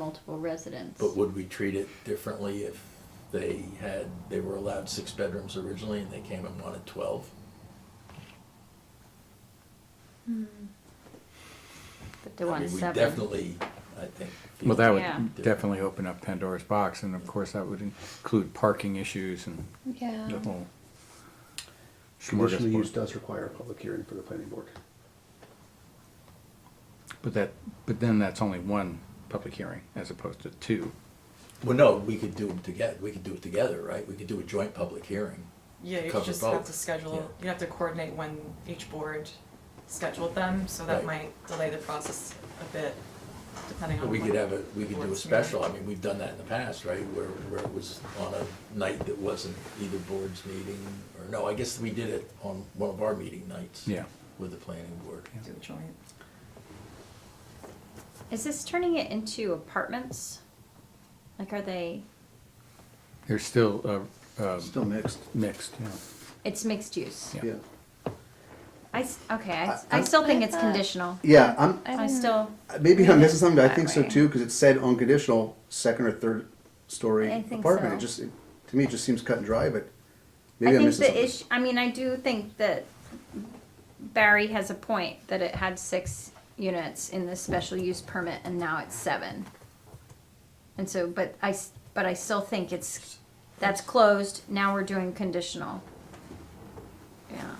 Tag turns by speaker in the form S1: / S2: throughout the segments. S1: multiple residents.
S2: But would we treat it differently if they had, they were allowed six bedrooms originally and they came and wanted twelve?
S1: But they
S2: I
S1: want
S2: mean, we
S1: seven.
S2: Definitely, I think.
S3: Well, that
S1: Yeah.
S3: would definitely open up Pandora's box, and of course, that would include parking issues and
S4: Yeah.
S3: the whole.
S5: Conditional use
S3: smorgasbord.
S5: does require a public hearing for the planning board.
S3: But that, but then that's only one public hearing as opposed to two.
S2: Well, no, we could do them together, we could do it together, right? We could do a joint public hearing.
S6: Yeah, you
S2: cover
S6: just
S2: both.
S6: have to schedule,
S2: Yeah.
S6: you have to coordinate when each board scheduled them, so that
S2: Right.
S6: might delay the process a bit, depending
S2: But
S6: on.
S2: we
S6: when
S2: could have a, we could do a
S6: boards meet.
S2: special, I mean, we've done that in the past, right? Where, where it was on a night that wasn't either board's meeting, or no, I guess we did it on one of our meeting nights.
S3: Yeah.
S2: With the planning board.
S6: Do a joint.
S1: Is this turning it into apartments? Like, are they?
S3: There's still, uh, um,
S5: Still mixed.
S3: mixed, yeah.
S1: It's mixed use.
S3: Yeah.
S5: Yeah.
S1: I s- okay. I, s-
S5: I-
S1: I still think
S4: I
S1: it's
S4: thought-
S1: conditional.
S5: Yeah, I'm,
S1: I, still.
S5: maybe I'm missing something, but I
S1: That
S5: think so
S1: way.
S5: too, because it said on conditional, second or third story
S1: I think
S5: apartment.
S1: so.
S5: It just, it- to me, it just seems cut and dry, but
S1: I
S5: maybe I'm
S1: think
S5: missing
S1: the
S5: something.
S1: issue. I mean, I do think that Barry has a point that it had six units in the special use permit, and now it's seven. And so, but I s- but I still think it's that's closed. Now we're doing conditional. Yeah.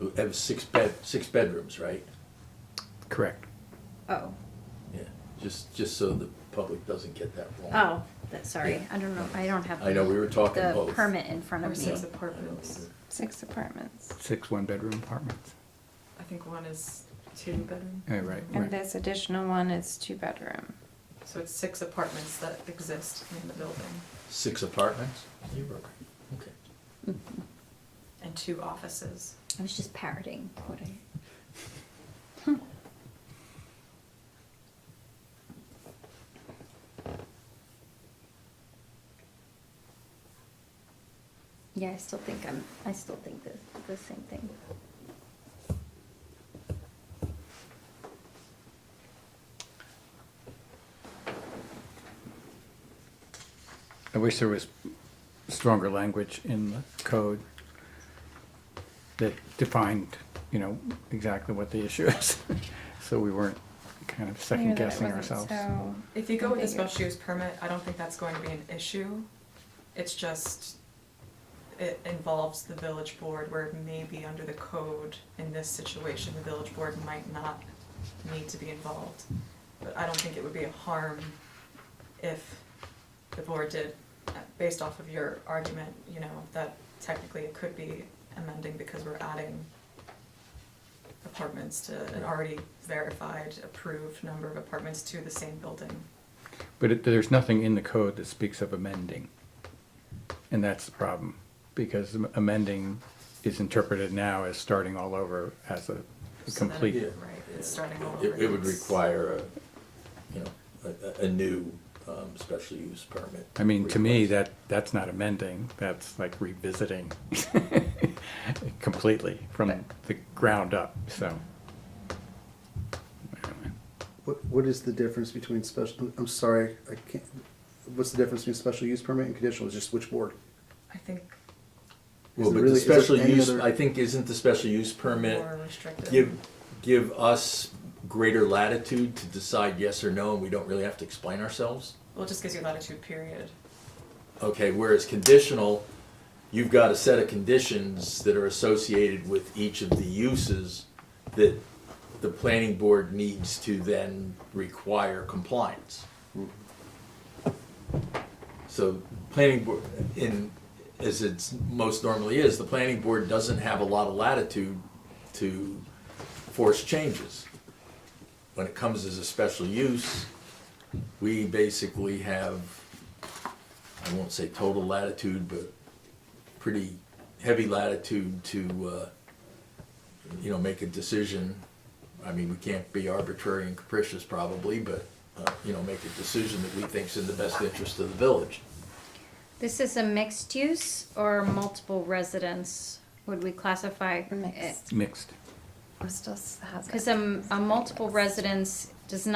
S2: It was six bed, six bedrooms, right?
S3: Correct.
S1: Oh.
S2: Yeah, just, just so the public doesn't get that wrong.
S1: Oh, that's sorry.
S2: Yeah.
S1: I don't know. I don't have.
S2: I know, we were talking
S1: the
S2: both.
S1: permit in front
S6: Or
S1: of me.
S6: six apartments.
S4: Six apartments.
S3: Six one-bedroom apartments.
S6: I think one is two bedroom.
S3: Yeah, right.
S4: And this additional one is two bedroom.
S6: So it's six apartments that exist in the building
S2: Six apartments? You were, okay.
S6: and two offices.
S1: I was just parroting what I. Yeah, I still think I'm. I still think the the same thing.
S3: I wish there was stronger language in the code that defined, you know, exactly what the issue is. So we weren't kind of
S4: Clear that
S3: second
S4: it
S3: guessing
S4: wasn't
S3: ourselves.
S4: so
S6: If you go with a
S4: ambiguous.
S6: special use permit, I don't think that's going to be an issue. It's just, it involves the village board where maybe under the code in this situation, the village board might not need to be involved. But I don't think it would be a harm if the board did, uh, based off of your argument, you know, that technically it could be amending because we're adding apartments to an already verified, approved number of apartments to the same building.
S3: But it, there's nothing in the code that speaks of amending. And that's the problem, because am- amending is interpreted now as starting all over as a
S6: So then-
S3: complete.
S2: Yeah.
S6: Right, it's starting all over.
S2: It, it would
S6: It's-
S2: require a, you know, a, a- a new, um, special use permit.
S3: I mean, to me,
S2: request.
S3: that, that's not amending, that's like revisiting completely from the ground up, so.
S5: What, what is the difference between special, I'm sorry, I can't, what's the difference between special use permit and conditional, It's just which board?
S6: I think
S2: Well, but
S5: Is there
S2: the
S5: really- is there
S2: special
S5: any
S2: use,
S5: other-
S2: I think, isn't the special use permit
S6: more restrictive.
S2: give, give us greater latitude to decide yes or no, and we don't really have to explain ourselves?
S6: Well, it just gives you latitude, period.
S2: Okay, whereas conditional, you've got a set of conditions that are associated with each of the uses that the planning board needs to then require compliance. So planning board, in, as it's most normally is, the planning board doesn't have a lot of latitude to force changes. When it comes as a special use, we basically have I won't say total latitude, but pretty heavy latitude to, uh, you know, make a decision. I mean, we can't be arbitrary and capricious probably, but, uh, you know, make a decision that we think's in the best interest of the village.
S1: This is a mixed use or multiple residence? Would we classify
S4: Mixed.
S3: Mixed.
S4: I'm still s- has it.
S1: Because a, a multiple residence does not.